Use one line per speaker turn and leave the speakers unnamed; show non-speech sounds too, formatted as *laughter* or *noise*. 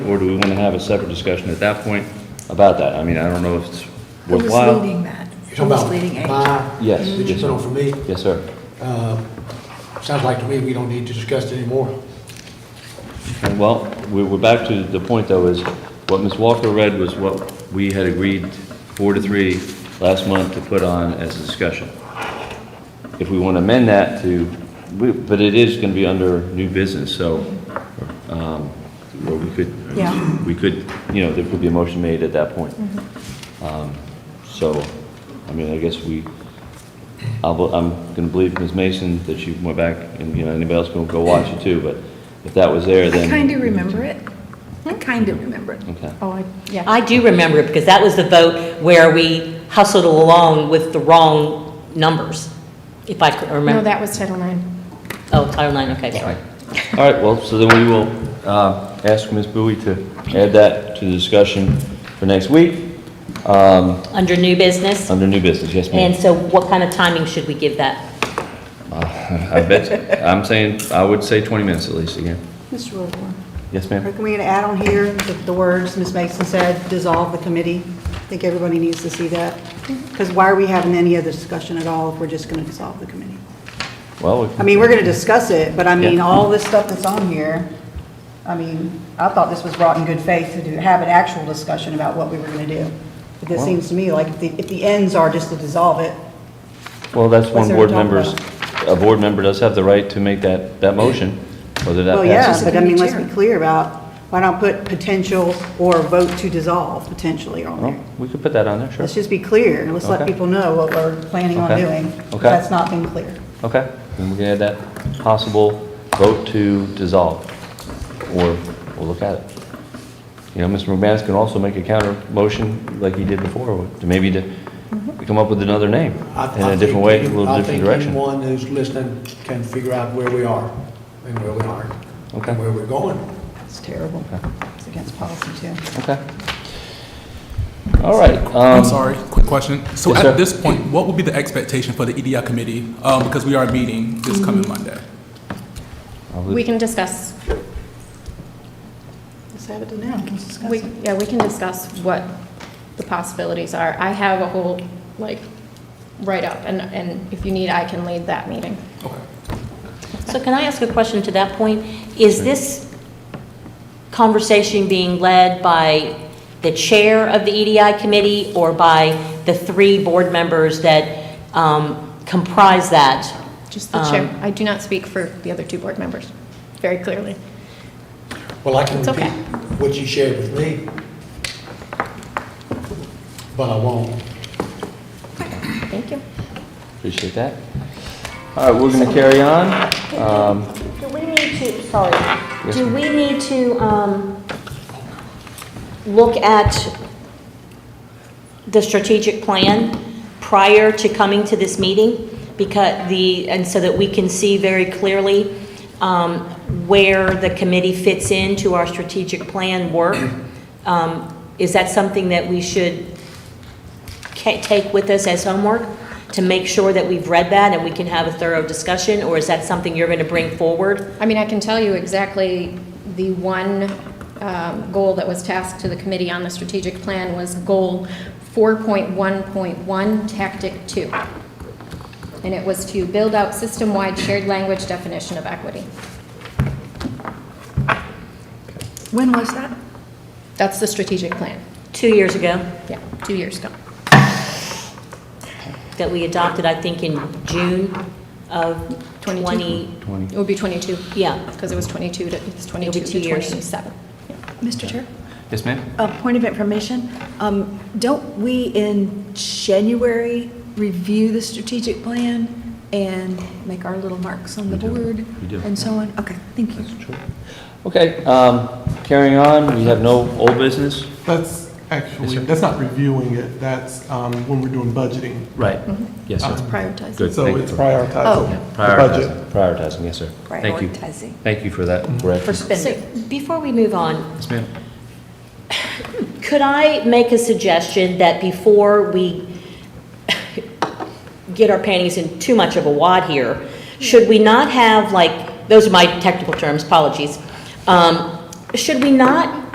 Or do we want to have a separate discussion at that point about that? I mean, I don't know if it's
Who was
worthwhile.
leading that?
You're
Who was leading
talking
it?
about my,
Yes,
that you
yes,
put
sir.
on for me? Uh,
Yes, sir.
Sounds like to me we don't need to discuss it anymore.
Okay, Well, we- we're back to the point, though, is what Ms. Walker read was what we had agreed, four to three, last month to put on as a discussion. If we want to amend that to, we- but it is going to be under new business, so, um, or we could,
Yeah.
we could, you know, there could be a motion made at that point.
Mm-hmm.
Um, So, I mean, I guess we, I'll, bel- I'm going to believe Ms. Mason that she went back, and, you know, anybody else can go watch it too, but if that was there,
I
then...
kind of remember it. I kind of remember it.
Okay.
Oh, I, yeah.
I do remember it, because that was the vote where we hustled along with the wrong numbers, if I could
No,
remember.
that was Title IX.
Oh, Title IX, okay, sorry.
All right, well, so then we will uh, ask Ms. Bowie to add that to the discussion for next week, um,
Under new business,
under new business, yes,
and
ma'am.
so what kind of timing should we give that?
I bet, I'm saying, I would say 20 minutes at least again.
Mr. Wilborn,
Yes, ma'am?
can we add on here the the words Ms. Mason said, dissolve the committee? I think everybody needs to see that, because why are we having any other discussion at all if we're just going to dissolve the committee?
Well, we
I
can-
mean, we're going to discuss it, but I mean,
Yeah.
all this stuff that's on here, I mean, I thought this was brought in good faith to do, have an actual discussion about what we were going to do. But this seems to me like if the, if the ends are just to dissolve it,
well, that's one
What's there to
board
talk
member's, a board member does have the right to make that, that motion, whether that
well,
passes.
yeah, but I mean,
It's a
let's
committee
be clear about, why not put potential or vote to dissolve potentially on
Well,
there?
We could put that on there, sure.
Let's just be clear, and let's let
Okay.
people know what we're planning on
Okay.
doing.
Okay.
That's not been clear.
Okay, then we can add that possible vote to dissolve, or we'll look at it. You know, Mr. McManus can also make a counter motion like he did before, to maybe to
Mm-hmm.
come up with another name
I- I
in a
think
different way, a
any-
little different
I think
direction.
anyone who's listening can figure out where we are and where we aren't.
Okay.
And where we're going.
It's terrible. It's against policy, too.
Okay. All right. um,
I'm sorry, quick question. So
Yes, sir.
at this point, what would be the expectation for the EDI committee? Um, Because we are meeting this coming Monday.
I'll leave-
We can discuss,
Let's have it now, let's discuss
we,
it.
yeah, we can discuss what the possibilities are. I have a whole, like, write-up, and, and if you need, I can lead that meeting.
Okay.
So can I ask a question to that point? Is this conversation being led by the chair of the EDI committee or by the three board members that um, comprise that?
Just the chair.
Um,
I do not speak for the other two board members, very clearly.
Well, I can
It's okay.
repeat what you shared with me, but I won't.
Thank you.
Appreciate that. All right, we're going to carry on. Um,
Do we need to, sorry,
Yes,
do
ma'am.
we need to um, look at the strategic plan prior to coming to this meeting? Because the, and so that we can see very clearly um, where the committee fits into our strategic plan
*clears throat*
work? Um, Is that something that we should ca- take with us as homework to make sure that we've read that and we can have a thorough discussion? Or is that something you're going to bring forward?
I mean, I can tell you exactly the one um, goal that was tasked to the committee on the strategic plan was goal 4.1.1, tactic two. And it was to build out system-wide shared language definition of equity.
When was that?
That's the strategic plan,
Two years ago?
yeah, two years ago.
that we adopted, I think, in June of
22.
20,
It would be 22,
yeah.
because it was 22 to, it's 22
two
to
years.
27.
Mr. Chair?
Yes, ma'am?
A point of information, um, don't we in January review the strategic plan and make our little marks on the
We do.
board?
We do.
And so on? Okay, thank you.
That's true. Okay, um, carrying on, we have no old business.
That's actually, that's not reviewing it, that's um, when we're doing budgeting.
Right. Yes, sir.
Prioritize.
Good,
Uh-huh. So
thank you.
it's prioritizing the budget.
Prioritizing, prioritizing, yes, sir. Thank you.
Prioritizing.
Thank you for that correction.
So before we move on,
Yes, ma'am.
could I make a suggestion that before we get our panties in too much of a wad here, should we not have, like, those are my technical terms, apologies. Um, Should we not